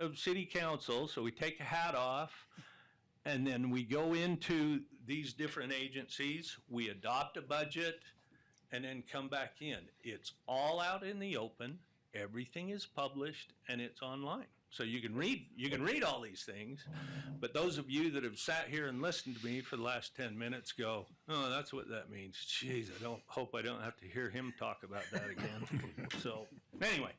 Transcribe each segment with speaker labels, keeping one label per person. Speaker 1: of city council, so we take the hat off, and then we go into these different agencies, we adopt a budget, and then come back in. It's all out in the open, everything is published, and it's online. So you can read, you can read all these things, but those of you that have sat here and listened to me for the last ten minutes go, oh, that's what that means. Jeez, I don't, hope I don't have to hear him talk about that again. So, anyway.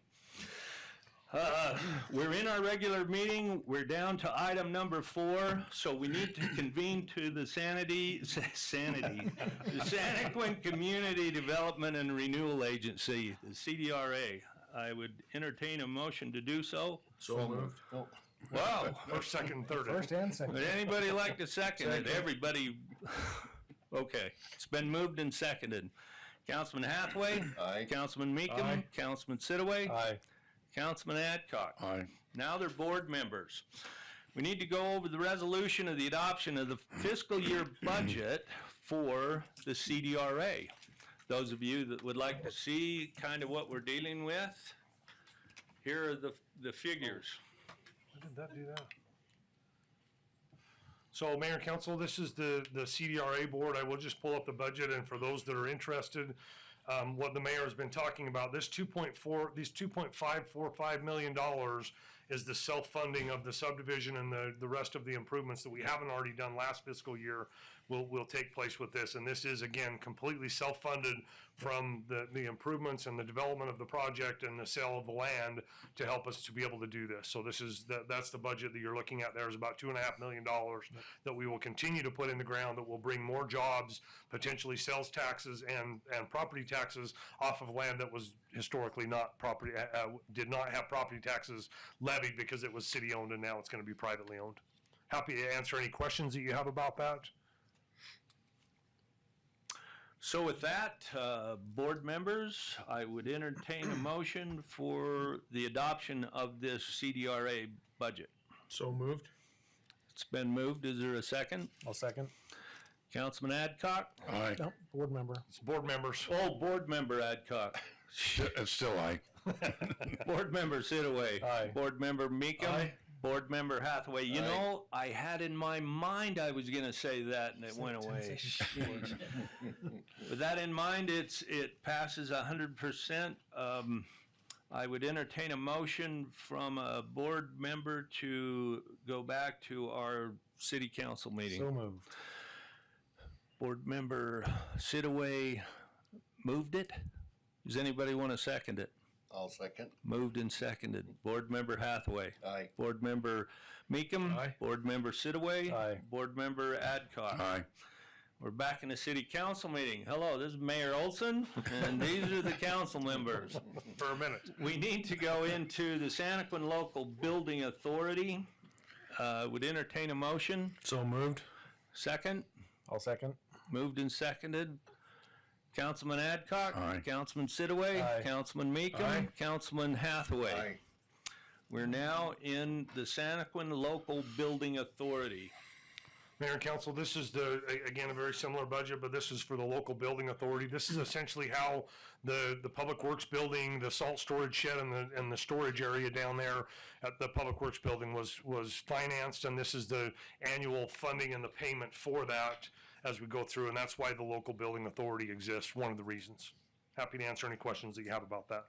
Speaker 1: Uh, We're in our regular meeting. We're down to item number four, so we need to convene to the sanity, sanity, the Santaquin Community Development and Renewal Agency, the CDRA. I would entertain a motion to do so.
Speaker 2: So moved.
Speaker 3: Oh.
Speaker 1: Wow.
Speaker 2: First, second, third.
Speaker 3: First and
Speaker 1: Would
Speaker 3: second.
Speaker 1: anybody like to second it?
Speaker 2: Second.
Speaker 1: Everybody, okay. It's been moved and seconded. Councilman Hathaway,
Speaker 2: Aye.
Speaker 1: Councilman Meekum,
Speaker 3: Aye.
Speaker 1: Councilman Sitaway,
Speaker 2: Aye.
Speaker 1: Councilman Adcock.
Speaker 2: Aye.
Speaker 1: Now they're board members. We need to go over the resolution of the adoption of the fiscal year budget for the CDRA. Those of you that would like to see kind of what we're dealing with, here are the, the figures.
Speaker 2: Why did that do that? So Mayor and Council, this is the, the CDRA board. I will just pull up the budget and for those that are interested, um, what the mayor has been talking about, this two point four, these two point five four five million dollars is the self-funding of the subdivision and the, the rest of the improvements that we haven't already done last fiscal year will, will take place with this. And this is again, completely self-funded from the, the improvements and the development of the project and the sale of the land to help us to be able to do this. So this is, that, that's the budget that you're looking at there is about two and a half million dollars that we will continue to put in the ground that will bring more jobs, potentially sales taxes and, and property taxes off of land that was historically not property, uh, uh, did not have property taxes levied because it was city owned and now it's gonna be privately owned. Happy to answer any questions that you have about that.
Speaker 1: So with that, uh, board members, I would entertain a motion for the adoption of this CDRA budget.
Speaker 2: So moved.
Speaker 1: It's been moved. Is there a second?
Speaker 3: I'll second.
Speaker 1: Councilman Adcock?
Speaker 4: Aye.
Speaker 3: No, board member.
Speaker 2: It's board members.
Speaker 1: Oh, board member Adcock.
Speaker 4: It's Uh, still aye.
Speaker 1: Board member Sitaway.
Speaker 3: Aye.
Speaker 1: Board member Meekum.
Speaker 4: Aye.
Speaker 1: Board member Hathaway. You
Speaker 4: Aye.
Speaker 1: know, I had in my mind I was going to say that and it went away. With that in mind, it's, it passes hundred percent. Um, I would entertain a motion from a board member to go back to our city council meeting.
Speaker 3: So moved.
Speaker 1: Board member Sitaway moved it. Does anybody want to second it?
Speaker 5: I'll second.
Speaker 1: Moved and seconded. Board member Hathaway.
Speaker 5: Aye.
Speaker 1: Board member Meekum.
Speaker 2: Aye.
Speaker 1: Board member Sitaway.
Speaker 3: Aye.
Speaker 1: Board member Adcock.
Speaker 4: Aye.
Speaker 1: We're back in the city council meeting. Hello, this is Mayor Olson, and these are the council members.
Speaker 2: for a minute.
Speaker 1: We need to go into the Santaquin Local Building Authority. Uh, Would entertain a motion.
Speaker 3: So moved.
Speaker 1: Second,
Speaker 3: I'll second.
Speaker 1: moved and seconded. Councilman Adcock.
Speaker 4: Aye.
Speaker 1: Councilman Sitaway.
Speaker 3: Aye.
Speaker 1: Councilman Meekum.
Speaker 3: Aye.
Speaker 1: Councilman Hathaway.
Speaker 5: Aye.
Speaker 1: We're now in the Santaquin Local Building Authority.
Speaker 2: Mayor and council, this is the, a- again, a very similar budget, but this is for the local building authority. This is essentially how the, the public works building, the salt storage shed and the, and the storage area down there at the public works building was, was financed. And this is the annual funding and the payment for that as we go through. And that's why the local building authority exists, one of the reasons. Happy to answer any questions that you have about that.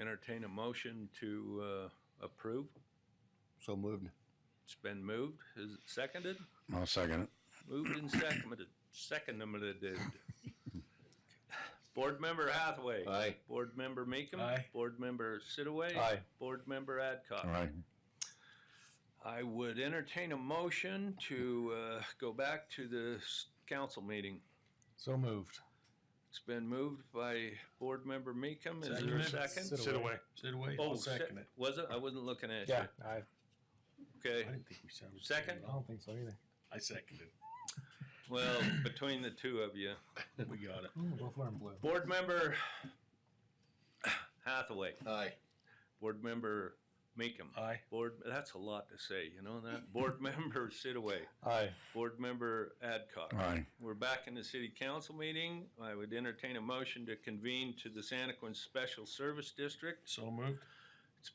Speaker 1: Entertain a motion to uh, approve.
Speaker 5: So moved.
Speaker 1: It's been moved. Is it seconded?
Speaker 4: I'll second it.
Speaker 1: Moved and seconded. Seconded. Board member Hathaway.
Speaker 5: Aye.
Speaker 1: Board member Meekum.
Speaker 3: Aye.
Speaker 1: Board member Sitaway.
Speaker 3: Aye.
Speaker 1: Board member Adcock.
Speaker 4: Aye.
Speaker 1: I would entertain a motion to uh, go back to the s- council meeting.
Speaker 3: So moved.
Speaker 1: It's been moved by board member Meekum. Is there a
Speaker 3: Seconded.
Speaker 1: second?
Speaker 2: Sit away.
Speaker 6: Sit away.
Speaker 1: Oh,
Speaker 6: I'll second
Speaker 1: se-
Speaker 6: it.
Speaker 1: Was it? I wasn't looking at you.
Speaker 3: Yeah, I,
Speaker 6: I
Speaker 1: Okay.
Speaker 6: didn't think we sounded. so
Speaker 1: Second?
Speaker 3: I
Speaker 6: loud.
Speaker 3: don't think so either.
Speaker 6: I seconded.
Speaker 1: Well, between the two of you.
Speaker 6: We got it.
Speaker 3: Ooh, go Florida Blue.
Speaker 1: Board member Hathaway,
Speaker 5: Aye.
Speaker 1: board member Meekum.
Speaker 6: Aye.
Speaker 1: Board, that's a lot to say, you know that? Board member Sitaway,
Speaker 3: Aye.
Speaker 1: board member Adcock.
Speaker 4: Aye.
Speaker 1: We're back in the city council meeting. I would entertain a motion to convene to the Santaquin Special Service District.
Speaker 6: So moved.